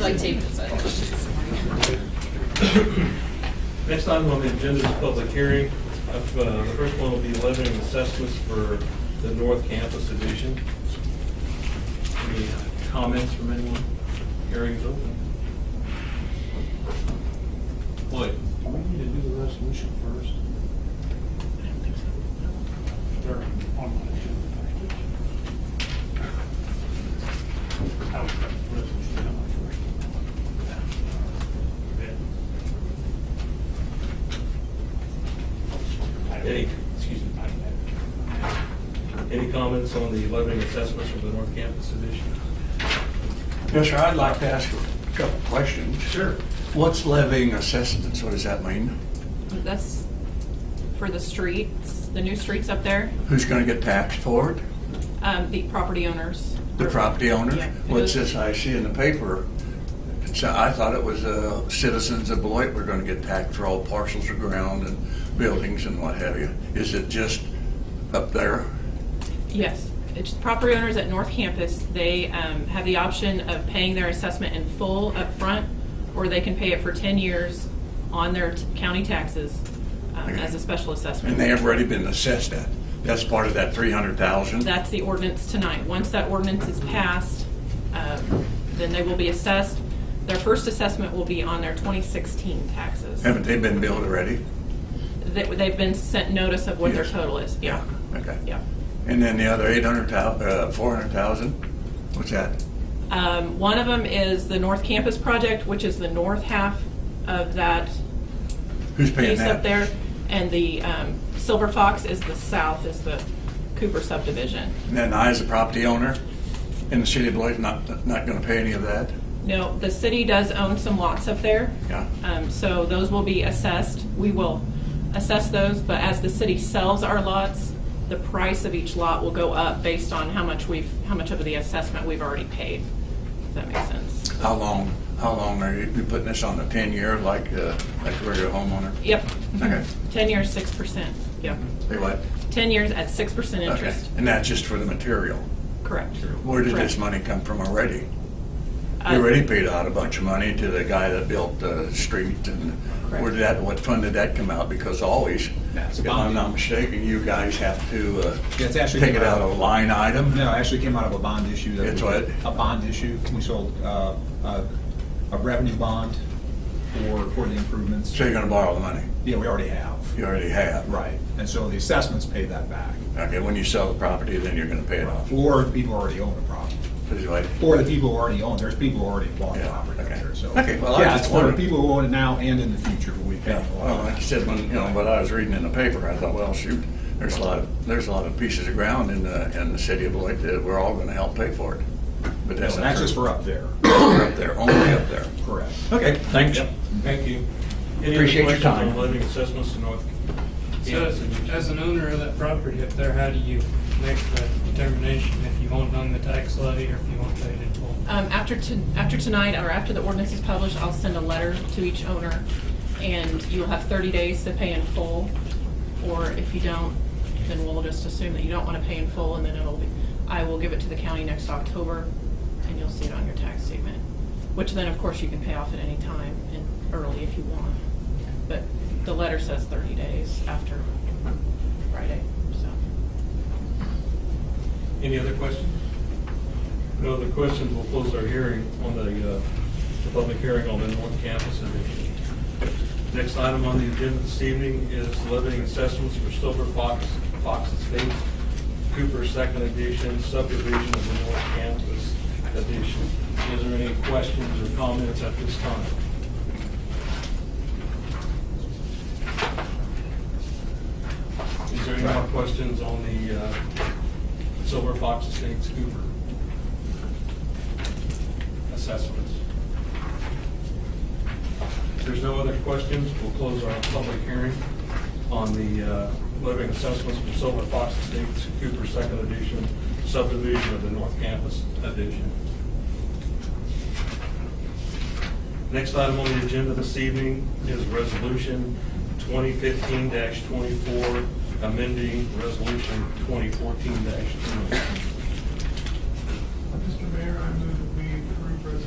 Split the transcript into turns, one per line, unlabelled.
like tape this up.
Next item on the agenda is public hearing. Of, uh, The first one will be levying assessments for the North Campus Edition. Any uh, comments from anyone? Hearing's open. Lloyd?
Do we need to do the resolution first? They're on my agenda package. I would put the resolution down my first.
Any, excuse me, any comments on the levying assessments from the North Campus Edition?
Yes, sir, I'd like to ask a couple of questions. Sure. What's levying assessments, what does that mean?
That's for the streets, the new streets up there,
Who's gonna get taxed for it?
um, the property owners.
The property owners?
Yeah.
What's this I see in the paper? It's, I thought it was, uh, citizens of Beloit were gonna get taxed for all parcels of ground and buildings and what have you. Is it just up there?
Yes, it's property owners at North Campus. They um, have the option of paying their assessment in full upfront, or they can pay it for 10 years on their t- county taxes um, as a special assessment.
And they have already been assessed at? That's part of that three hundred thousand?
That's the ordinance tonight. Once that ordinance is passed, um, then they will be assessed. Their first assessment will be on their 2016 taxes.
Haven't they been billed already?
They- They've been sent notice of what their
Yes.
total is, yeah.
Okay.
Yeah.
And then the other eight hundred thou, uh, four hundred thousand, what's that?
Um, One of them is the North Campus project, which is the north half of that
Who's paying
piece
that?
up there. And the um, Silver Fox is the south, is the Cooper subdivision.
And then I, as a property owner in the city of Beloit, not, not gonna pay any of that?
No, the city does own some lots up there.
Yeah.
Um, So those will be assessed. We will assess those, but as the city sells our lots, the price of each lot will go up based on how much we've, how much of the assessment we've already paid. If that makes sense.
How long, how long are you, you putting this on the ten-year like, uh, like a regular homeowner?
Yep.
Okay.
Ten years, six percent. Yep.
They what?
Ten years at six percent
Okay,
interest.
and that's just for the material.
Correct.
Where did this
Correct.
money come from already?
Uh,
You already paid out a bunch of money to the guy that built the street and where did that, what fund did that come out? Because always,
That's
if
bonding.
I'm not mistaken, you guys have to, uh,
That's actually
take it
come out
out of a line item?
No, it actually came out of a bond issue. that
It's
we-
what?
A bond issue. We sold uh, a a revenue bond for, for the improvements.
So you're gonna borrow the money?
Yeah, we already have.
You already have.
Right. And so the assessments pay that back.
Okay, when you sell the property, then you're gonna pay it off.
Or people already own the property.
Is it like-
Or the people who already own, there's people who already bought the
Yeah,
property out
okay.
there, so.
Okay, well, I was
Yeah,
just
it's for the
wondering.
people who own it now and in the future, we pay
Yeah,
a lot.
well, like you said, when, you know, what I was reading in the paper, I thought, well, shoot, there's a lot of, there's a lot of pieces of ground in the, in the city of Beloit that we're all gonna help pay for it. But that's
So
not
That's just
true.
for up there,
Up there, only up there.
correct.
Okay, thanks.
Thank you.
Appreciate your
Any other questions on
time.
levying assessments to North?
So as, as an owner of that property up there, how do you make the determination if you want on the tax levy or if you want paid in full?
Um, after to, after tonight, or after the ordinance is published, I'll send a letter to each owner, and you'll have thirty days to pay in full. Or if you don't, then we'll just assume that you don't wanna pay in full, and then it'll be, I will give it to the county next October, and you'll see it on your tax statement. Which then, of course, you can pay off at any time and early if you want, but the letter says thirty days after Friday, so.
Any other questions? No other questions, we'll close our hearing on the, uh, the public hearing on the North Campus Edition. Next item on the agenda this evening is levying assessments for Silver Fox, Fox Estate, Cooper Second Edition subdivision of the North Campus Edition. Is there any questions or comments at this time? Is there any more questions on the uh, Silver Fox Estates Cooper assessments? If there's no other questions, we'll close our public hearing on the uh, living assessments for Silver Fox Estates Cooper Second Edition subdivision of the North Campus Edition. Next item on the agenda this evening is Resolution 2015-24, amending Resolution 2014-2.